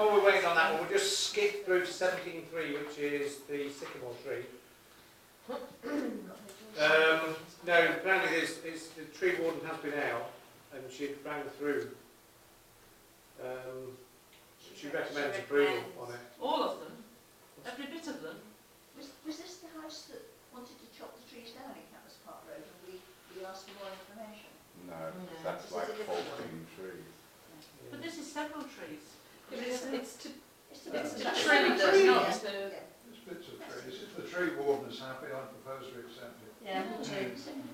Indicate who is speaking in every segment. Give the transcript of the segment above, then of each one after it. Speaker 1: on that one, we'll just skip through seventeen three, which is the sycamore tree. Um, no, apparently there's, it's, the tree warden has been out and she rang through. Um, she recommends approval on it.
Speaker 2: All of them? Every bit of them?
Speaker 3: Was, was this the house that wanted to chop the trees down in Campus Park Road and we, we asked for more information?
Speaker 4: No, that's like fourteen trees.
Speaker 2: But this is several trees.
Speaker 5: But it's, it's to,
Speaker 3: It's the
Speaker 5: it's
Speaker 3: bits
Speaker 5: to
Speaker 3: that-
Speaker 5: trim, that's not
Speaker 3: Yeah.
Speaker 5: to.
Speaker 6: It's bits of trees. If the tree warden is happy, I propose we accept it.
Speaker 3: Yeah, me too.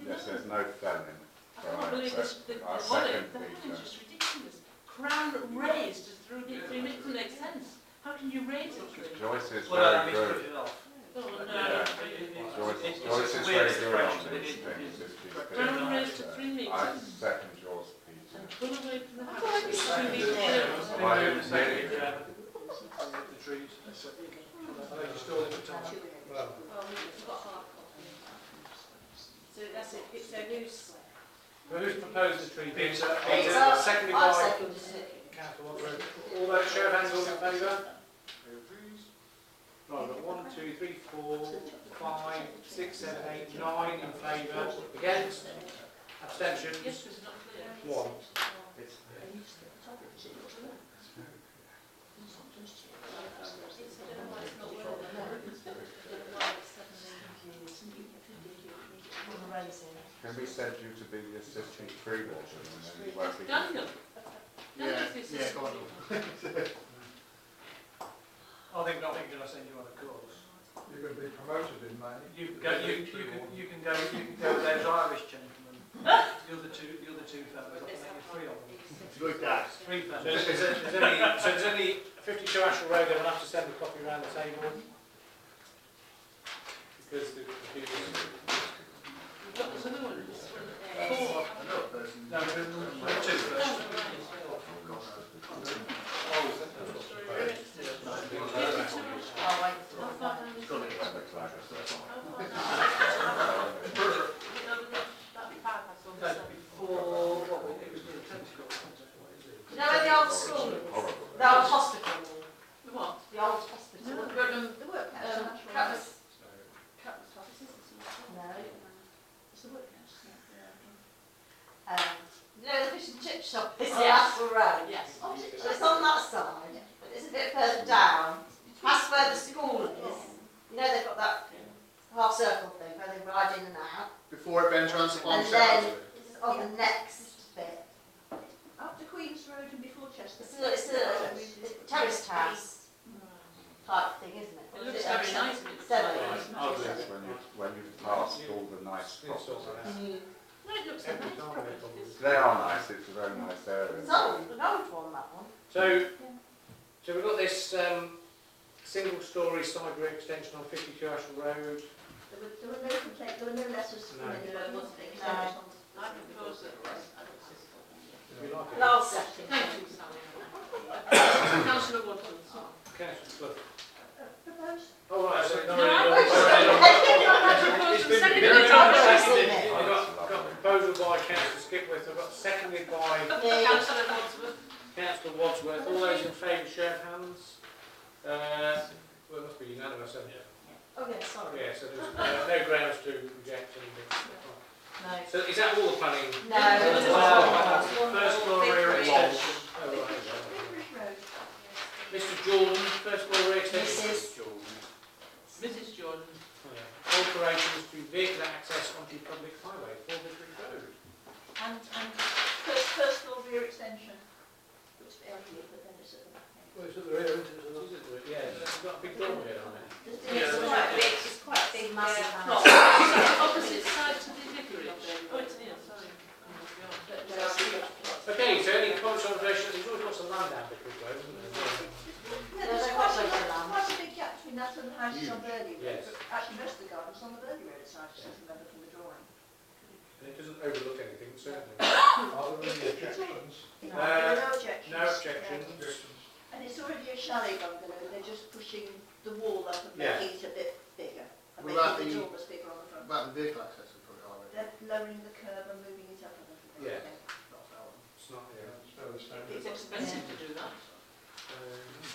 Speaker 4: Yes, there's no planning.
Speaker 2: I can't believe this, the, the
Speaker 4: I'll
Speaker 2: olive,
Speaker 4: second
Speaker 2: the
Speaker 4: Peter.
Speaker 2: olive is
Speaker 7: uh,
Speaker 2: just ridiculous. Crown raised is through, through it doesn't make sense. How can you raise a tree?
Speaker 4: Joyce is
Speaker 7: Well, I
Speaker 4: very
Speaker 7: mean, it's
Speaker 4: good.
Speaker 7: put it off.
Speaker 2: Oh,
Speaker 4: Yeah.
Speaker 2: no.
Speaker 4: Joyce,
Speaker 7: It's- it's
Speaker 4: Joyce
Speaker 7: a
Speaker 4: is
Speaker 7: weird
Speaker 4: very good on
Speaker 7: expression,
Speaker 4: these
Speaker 7: it is-
Speaker 4: things.
Speaker 7: it is.
Speaker 4: if she's
Speaker 7: But
Speaker 4: good
Speaker 2: Crown
Speaker 4: at
Speaker 2: raised to
Speaker 4: that.
Speaker 2: three
Speaker 4: uh, I
Speaker 2: metres
Speaker 4: second yours, Peter.
Speaker 2: and pull away from the
Speaker 5: I
Speaker 2: house.
Speaker 5: thought it was
Speaker 2: It's
Speaker 5: three
Speaker 2: too big.
Speaker 5: metres.
Speaker 4: So I
Speaker 7: Been
Speaker 4: am
Speaker 7: doing the same
Speaker 4: knitting.
Speaker 7: with, uh, The trees. I think you stole it for time.
Speaker 1: Well,
Speaker 5: Oh, So that's it, it's a new s-
Speaker 1: who's proposed the tree?
Speaker 7: Peter,
Speaker 1: Peter,
Speaker 5: oh,
Speaker 1: seconded by
Speaker 3: I'll second it.
Speaker 1: councillor Watford. All those show of hands, all in favour? Right, we've got one, two, three, four, five, six, seven, eight, nine in favour, against,
Speaker 2: Yes,
Speaker 1: abstentions,
Speaker 2: but it's not clear.
Speaker 1: one.
Speaker 4: Can we send you to be the assistant tree warden and then you won't be?
Speaker 2: Daniel. Daniel's the
Speaker 7: Yeah, yeah,
Speaker 2: assistant.
Speaker 7: go on. I think, I think that I send you on a course.
Speaker 6: You're going to be promoted in May.
Speaker 7: You can go, you, you can, you can go, you can go with those Irish gentlemen, the other two, the other two fellows, I think there's three of them. Three
Speaker 1: So there's,
Speaker 7: fellows.
Speaker 1: there's only, so there's only fifty-two Ashwell Road, they will have to send a copy around the table. Because the computer's.
Speaker 2: We've got this other one, this one.
Speaker 4: Four.
Speaker 7: No, there are two
Speaker 2: Oh,
Speaker 7: first. Oh, that's-
Speaker 2: right. Sorry, right. Fifty-two. How far down is it? How far down? No, no, no, that'd be bypass on the
Speaker 7: that's
Speaker 2: side.
Speaker 7: before, what, was it? it was the tentacle.
Speaker 3: No, the old school, the old hospital,
Speaker 2: The what?
Speaker 3: the old hospital.
Speaker 5: um,
Speaker 3: The workhouse.
Speaker 5: um,
Speaker 3: Natural House.
Speaker 5: Campus,
Speaker 3: Campus Hospital. No. It's the workhouse. Um, you know, the fish and chip shop is the
Speaker 2: Yes.
Speaker 3: Apple Road.
Speaker 2: Yes.
Speaker 3: So it's on that side, but it's a bit further down. That's where the school is. You know, they've got that half circle thing where they ride in and out.
Speaker 8: Before it then transforms
Speaker 3: And then-
Speaker 8: into-
Speaker 3: It's on the next bit.
Speaker 5: up to Queen's Road and before Chester.
Speaker 3: It's a, it's a it's a terraced house type thing, isn't it?
Speaker 2: It looks very nice. and it's-
Speaker 3: Seven.
Speaker 1: I'll do
Speaker 4: Yes, when you, when you've passed all the nice
Speaker 1: It's all
Speaker 4: properties.
Speaker 1: right.
Speaker 2: No, it looks a
Speaker 1: Every
Speaker 2: nice
Speaker 1: time
Speaker 2: property.
Speaker 1: they come.
Speaker 2: It's-
Speaker 4: They are nice, it's a very nice area.
Speaker 3: It's old, an old one, that one.
Speaker 1: So, so we've got this, um, single storey side rear extension on fifty-two Ashwell Road.
Speaker 3: There were, there were no complaints, there were no letters
Speaker 1: from No.
Speaker 2: anyone, wasn't there? I propose that.
Speaker 1: If you like it.
Speaker 3: Last session.
Speaker 2: Thank you, Sally. Councillor Woodland.
Speaker 1: Councillor Clough.
Speaker 3: Proposed.
Speaker 1: Oh, right, so.
Speaker 2: No, I
Speaker 1: Well,
Speaker 2: propose-
Speaker 1: It's been-
Speaker 2: Second
Speaker 1: been-
Speaker 2: by Councillor-
Speaker 1: seconded.
Speaker 3: Isn't it?
Speaker 1: We've got, got a proposal by councillor Skipworth, I've got seconded by
Speaker 3: Yeah.
Speaker 2: Councillor Wadsworth.
Speaker 1: councillor Wadsworth. All those in favour, show of hands. Uh, well, it must be unanimous, hasn't it?
Speaker 3: Okay, sorry.
Speaker 1: Yeah, so there's uh, no grounds to reject anything.
Speaker 3: No.
Speaker 1: So is that all the planning?
Speaker 3: No.
Speaker 1: Wow.
Speaker 3: Wow.
Speaker 1: First floor rear extension. Oh, right, right, right. Mr Jordan, first floor rear extension.
Speaker 3: Mrs.
Speaker 2: Mrs Jordan.
Speaker 1: Oh, yeah. Alterations to vehicle access onto public highway, Four Vicarage Road.
Speaker 3: And, and
Speaker 5: First, first floor rear extension.
Speaker 3: looks a bit ugly, but then it's at the back end.
Speaker 6: Well, it's at the rear, isn't it?
Speaker 1: Is it? Yeah, it's got a big door here on it.
Speaker 3: It's quite big, it's quite a big, massive
Speaker 5: Yeah.
Speaker 3: house.
Speaker 2: Opposite side to the vicarage. Oh, it's here, sorry. Oh,
Speaker 5: But, uh,
Speaker 1: Okay, so any comments on relations, there's always lots of land down Vicarage Road, isn't
Speaker 3: No,
Speaker 5: There's
Speaker 3: they've
Speaker 5: quite
Speaker 3: got
Speaker 5: a,
Speaker 3: loads of land.
Speaker 5: quite a big gap between that and the houses on Burley Road.
Speaker 1: Yes.
Speaker 5: Actually, most of the garden's on the Burley Road side, I just remember from the drawing.
Speaker 1: there? And it doesn't overlook anything, certainly.
Speaker 6: Are there any objections?
Speaker 3: No.
Speaker 1: Uh,
Speaker 5: There are no objections.
Speaker 1: No objections.
Speaker 6: Objections.
Speaker 5: And it's already a chalet bungalow, they're just pushing the wall up and
Speaker 1: Yeah.
Speaker 5: making it a bit bigger. And
Speaker 8: Will that be-
Speaker 5: making the door was bigger on the front.
Speaker 8: About the vehicle access is probably already.
Speaker 5: They're lowering the curb and moving it up a little bit.
Speaker 1: Yeah.
Speaker 5: I think.
Speaker 8: Not that one.
Speaker 1: It's not
Speaker 6: Yeah,
Speaker 1: here.
Speaker 6: it's fairly standard.
Speaker 2: It's expensive to do that.
Speaker 1: Um,